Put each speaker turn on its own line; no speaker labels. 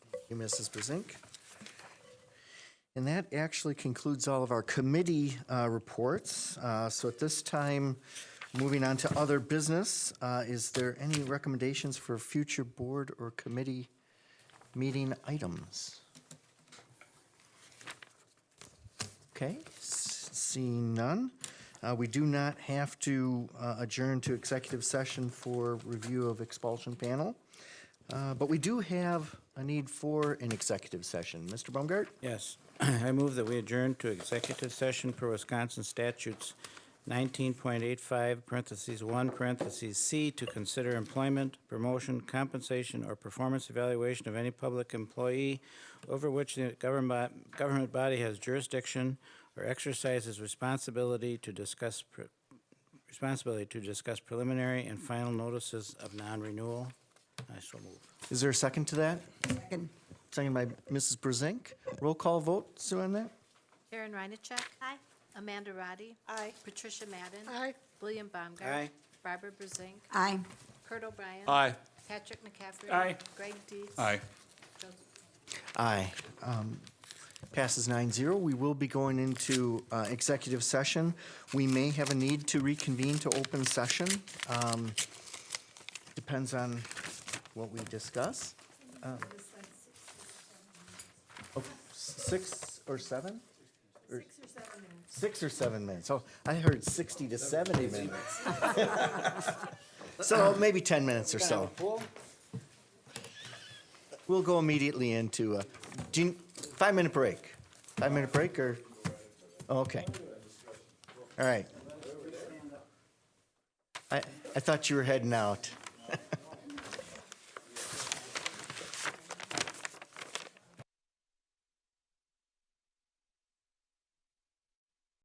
you, Mrs. Brezink. And that actually concludes all of our committee uh, reports. Uh, So at this time, moving on to other business, uh, is there any recommendations for future board or committee meeting items? Okay, s- seeing none. Uh, We do not have to uh, adjourn to executive session for review of expulsion panel, Uh, but we do have a need for an executive session. Mr. Baumgart?
Yes. I move that we adjourn to executive session per Wisconsin statutes 19.85, parentheses 1, parentheses C, to consider employment, promotion, compensation, or performance evaluation of any public employee over which the government government body has jurisdiction or exercises responsibility to discuss, pre- responsibility to discuss preliminary and final notices of non-renewal. I so move.
Is there a second to that? Second by Mrs. Brezink. Roll call vote, Sue, on that?
Karen Reinacek. Aye. Amanda Roddy. Aye. Patricia Madden.
Aye.
William Baumgart.
Aye.
Barbara Brezink.
Aye.
Kurt O'Brien.
Aye.
Patrick McCaffrey.
Aye.
Greg Dees.
Aye.
Joseph
Aye. Um, Passes 9-0. We will be going into uh, executive session. We may have a need to reconvene to open session. Um, Depends on what we discuss. Um, oh, Six or seven? Or- Six or seven minutes. Oh, I heard 60 to 70 minutes. So maybe 10 minutes or so. We'll go immediately into a do you- five-minute break. Five-minute break or, oh, okay. All right. I, I thought you were heading out.